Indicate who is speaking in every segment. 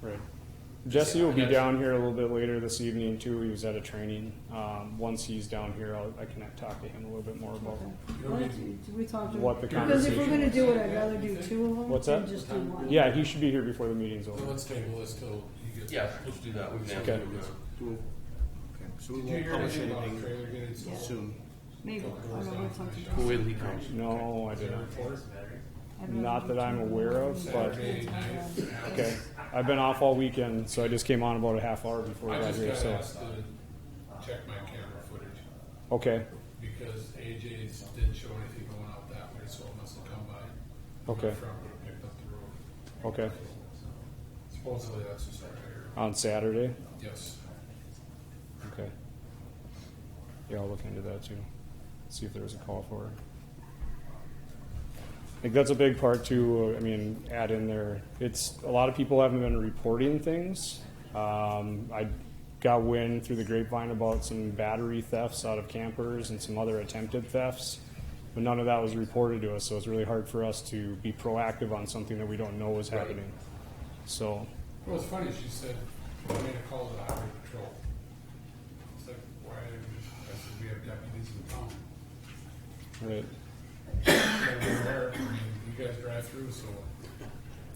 Speaker 1: Right. Jesse will be down here a little bit later this evening too. He was at a training. Um, once he's down here, I'll, I can talk to him a little bit more about
Speaker 2: Why don't you- do we talk to?
Speaker 1: what the
Speaker 2: Because if we're
Speaker 1: conversation
Speaker 2: gonna
Speaker 1: was.
Speaker 2: do it, I'd rather do two of them.
Speaker 1: What's
Speaker 2: than
Speaker 1: that?
Speaker 2: Just do one.
Speaker 1: Yeah, he should be here before the meeting's
Speaker 3: So
Speaker 1: over.
Speaker 3: let's table this till you get.
Speaker 4: Yeah, let's do that. We've
Speaker 1: Okay.
Speaker 5: Okay, so
Speaker 3: Did you
Speaker 5: we won't
Speaker 3: hear
Speaker 5: publish
Speaker 3: anything about the
Speaker 5: anything
Speaker 3: trailer getting sold?
Speaker 5: soon.
Speaker 2: Maybe, I don't know, we'll talk to.
Speaker 4: Who will he come?
Speaker 1: No, I didn't.
Speaker 2: I'd rather
Speaker 1: Not
Speaker 2: do
Speaker 1: that
Speaker 2: two
Speaker 1: I'm
Speaker 2: of them.
Speaker 1: aware of, but
Speaker 3: Saturday night.
Speaker 1: okay. I've been off all weekend, so I just came on about a half hour before I
Speaker 3: I
Speaker 1: got
Speaker 3: just
Speaker 1: here.
Speaker 3: got
Speaker 1: So
Speaker 3: asked to check my camera footage
Speaker 1: okay,
Speaker 3: because AJ's didn't show anything going out that way, so it must have come by.
Speaker 1: Okay.
Speaker 3: My friend would have picked up the road.
Speaker 1: okay.
Speaker 3: Supposedly that's the start here.
Speaker 1: On Saturday.
Speaker 3: Yes.
Speaker 1: Okay. Yeah, I'll look into that too. See if there was a call for it. I think that's a big part too. uh, I mean, add in there, it's, a lot of people haven't been reporting things. Um, I got wind through the grapevine about some battery thefts out of campers and some other attempted thefts. But none of that was reported to us, so it's really hard for us to be proactive on something that we don't know is happening. So,
Speaker 3: Well, it's funny, she said, I made a call to the highway patrol. It's like, why, I said, we have deputies in town.
Speaker 1: right,
Speaker 3: And they're there, I mean, You guys drive through, so.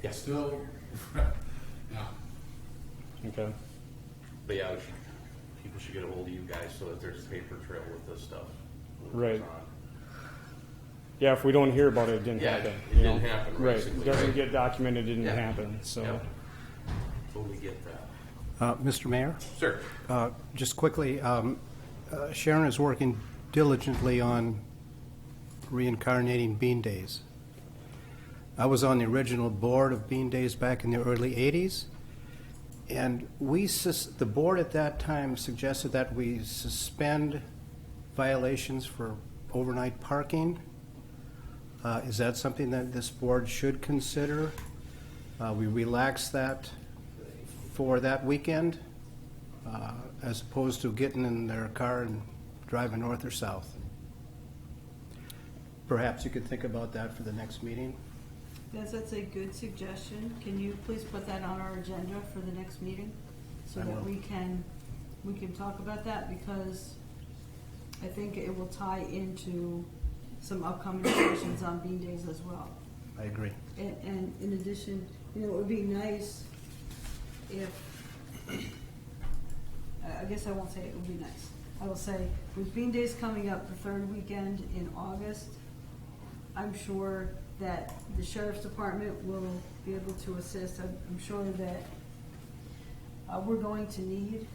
Speaker 4: Yeah.
Speaker 3: Still, yeah,
Speaker 1: okay,
Speaker 4: But yeah, we should- people should get a hold of you guys so that there's a paper trail with this stuff. Uh,
Speaker 1: right. Yeah, if we don't hear about it, it didn't
Speaker 4: Yeah,
Speaker 1: happen.
Speaker 4: it
Speaker 1: you know?
Speaker 4: didn't happen,
Speaker 1: Right,
Speaker 4: basically,
Speaker 1: it doesn't
Speaker 4: right.
Speaker 1: get documented, it didn't
Speaker 4: Yeah.
Speaker 1: happen, so.
Speaker 4: Yep. Totally get that.
Speaker 5: Uh, Mr. Mayor,
Speaker 4: Sir,
Speaker 5: uh, just quickly, um, uh, Sharon is working diligently on reincarnating Bean Days. I was on the original board of Bean Days back in the early 80s, and we, sus- the board at that time suggested that we suspend violations for overnight parking. Uh, Is that something that this board should consider? Uh, We relax that for that weekend, uh, as opposed to getting in their car and driving north or south. Perhaps you could think about that for the next meeting.
Speaker 2: Yes, that's a good suggestion. Can you please put that on our agenda for the next meeting? So
Speaker 5: I
Speaker 2: that
Speaker 5: will.
Speaker 2: we can, we can talk about that because I think it will tie into some upcoming discussions on bean days as well.
Speaker 5: I agree.
Speaker 2: And, and in addition, you know, it would be nice if, I I guess I won't say it would be nice. I will say, with Bean Days coming up the third weekend in August, I'm sure that the sheriff's department will be able to assist. I'm, I'm sure that uh, we're going to need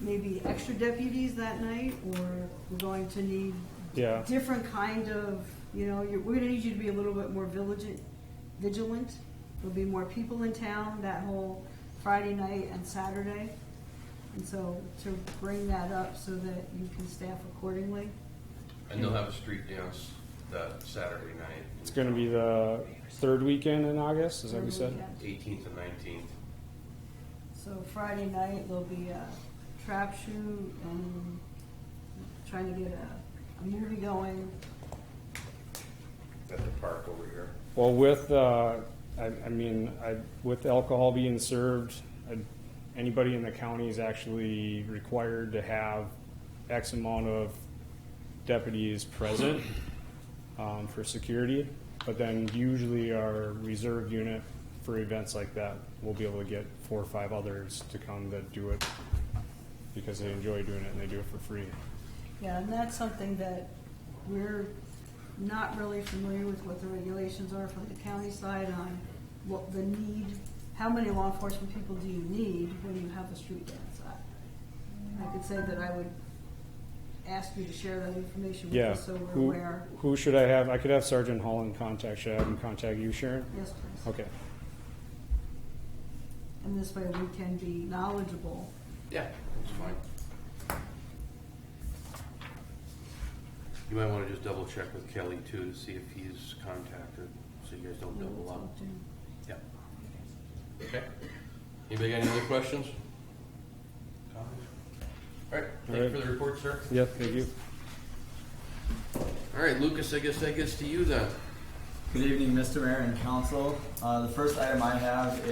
Speaker 2: maybe extra deputies that night, or we're going to need
Speaker 1: Yeah.
Speaker 2: different kind of, you know, you're, we're gonna need you to be a little bit more vigilant, vigilant. There'll be more people in town that whole Friday night and Saturday. And so to bring that up so that you can staff accordingly.
Speaker 4: and they'll have a street dance that Saturday night.
Speaker 1: It's gonna be the third weekend in August, is that what you said?
Speaker 4: Eighteenth and nineteenth.
Speaker 2: So Friday night, there'll be a trap shoot and trying to get a, a movie going.
Speaker 4: At the park over here.
Speaker 1: Well, with, uh, I, I mean, I, with alcohol being served, I- anybody in the county is actually required to have X amount of deputies present, um, for security. But then usually our reserve unit for events like that, will be able to get four or five others to come that do it because they enjoy doing it and they do it for free.
Speaker 2: Yeah, and that's something that we're not really familiar with what the regulations are from the county side on what the need, how many law enforcement people do you need when you have a street dance? I- I could say that I would ask you to share that information with
Speaker 1: Yeah.
Speaker 2: us so we're
Speaker 1: Who,
Speaker 2: aware.
Speaker 1: who should I have? I could have Sergeant Hall in contact. Should I have him contact you, Sharon?
Speaker 2: Yes, please.
Speaker 1: Okay,
Speaker 2: And this way we can be knowledgeable.
Speaker 4: Yeah, that's fine. You might wanna just double check with Kelly too, to see if he's contacted, so you guys don't double up. Yeah. Okay. Anybody got any other questions? Comments? All right, thank you for the report, sir.
Speaker 1: yeah, thank you.
Speaker 4: All right, Lucas, I guess that gets to you then.
Speaker 6: Good evening, Mr. Mayor and Council. Uh, The first item I have